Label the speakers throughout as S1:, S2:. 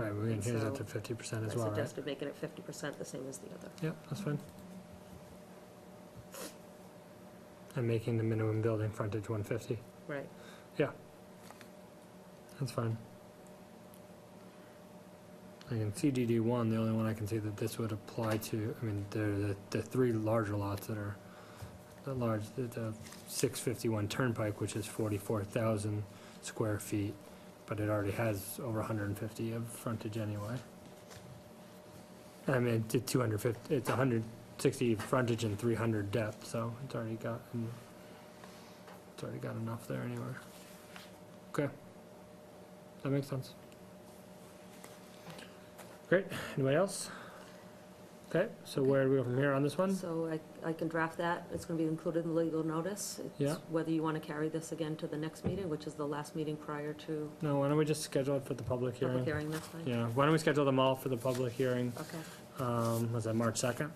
S1: Right, we're gonna
S2: And
S1: change that to
S2: so
S1: fifty percent
S2: I
S1: as well, right?
S2: suggested making it fifty percent, the same as the other.
S1: Yep, that's fine. And making the minimum building frontage one fifty,
S2: Right.
S1: that's fine. I can see DD one, the only one I can see that this would apply to, I mean, there are the, the three larger lots that are, the large, the, the six fifty-one Turnpike, which is forty-four thousand square feet, but it already has over hundred and fifty of frontage anyway. I mean, it's two hundred fifty, it's hundred sixty frontage and three hundred depth, so it's already got, mm, it's already got enough there anywhere. Okay. That makes sense. Great, anybody else? Okay, so where do we go from here on this one?
S2: So I, I can draft that, it's gonna be included in the legal notice. It's
S1: Yeah.
S2: Whether you wanna carry this again to the next meeting, which is the last meeting prior to
S1: No, why don't we just schedule it for the public
S2: public
S1: hearing?
S2: hearing, that's fine?
S1: Yeah, why don't we schedule them all for the public hearing,
S2: Okay,
S1: um, was that March second?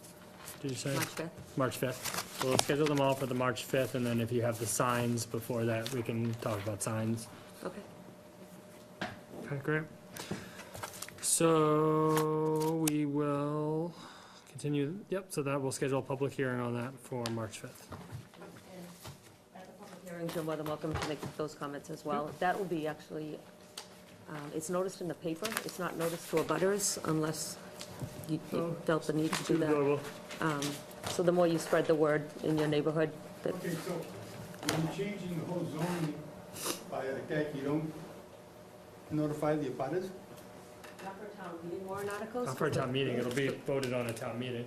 S1: Did you say?
S2: March fifth,
S1: March fifth. We'll schedule them all for the March fifth, and then if you have the signs before that, we can talk about signs.
S2: okay.
S1: Okay, great. So we will continue, yep, so that, we'll schedule a public hearing on that for March fifth.
S2: At the public hearing, you're more than welcome to make those comments as well. That will be actually, um, it's noticed in the paper, it's not noticed to abutters unless you you
S1: Oh.
S2: felt the need to do that. Um, So the more you spread the word in your neighborhood, that,
S3: Okay, so when you're changing the whole zoning by like that, you don't notify the abutters?
S2: not for town meeting warrant articles?
S1: Not for a town meeting, it'll be voted on at town meeting.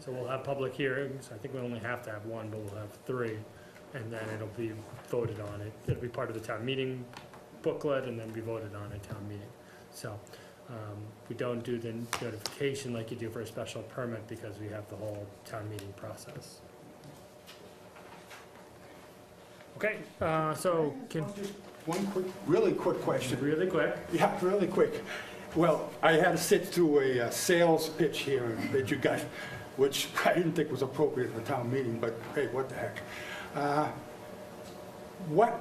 S1: So we'll have public hearings, I think we only have to have one, but we'll have three, and then it'll be voted on. It- It'll be part of the town meeting booklet and then be voted on at town meeting. So, um, we don't do the notification like you do for a special permit because we have the whole town meeting process. Okay, uh, so, can,
S3: Just One quick, really quick question.
S1: really quick,
S3: Yeah, really quick. Well, I had to sit through a uh, sales pitch here that you got, which I didn't think was appropriate for town meeting, but hey, what the heck. Uh, What,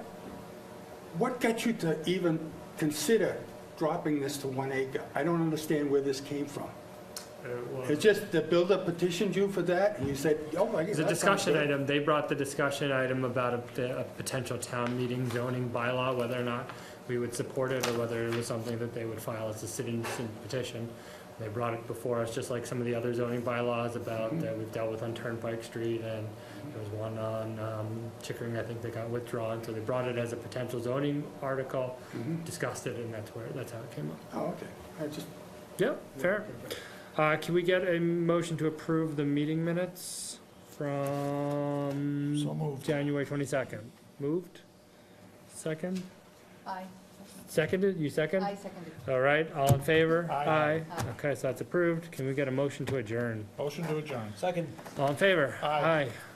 S3: what got you to even consider dropping this to one acre? I don't understand where this came from.
S1: uh, well-
S3: It's just the builder petitioned you for that, and you said, oh, I guess
S1: It's a
S3: that sounds
S1: discussion
S3: good."
S1: item, they brought the discussion item about a, the- a potential town meeting zoning bylaw, whether or not we would support it, or whether it was something that they would file as a citizen petition. They brought it before us, just like some of the other zoning bylaws about, that we've dealt with on Turnpike Street, and there was one on, um, Chickering, I think that got withdrawn, so they brought it as a potential zoning article,
S3: Mhm.
S1: discussed it, and that's where, that's how it came up.
S3: Oh, okay. I just,
S1: Yep, fair. Uh, can we get a motion to approve the meeting minutes from?
S4: So moved.
S1: January twenty-second. Moved? Second?
S5: Aye.
S1: Seconded? You second?
S5: Aye, seconded.
S1: All right, all in favor?
S4: Aye.
S5: Aye.
S1: Okay, so that's approved. Can we get a motion to adjourn?
S4: Motion to adjourn. Second.
S1: All in favor?
S4: Aye.
S1: Aye.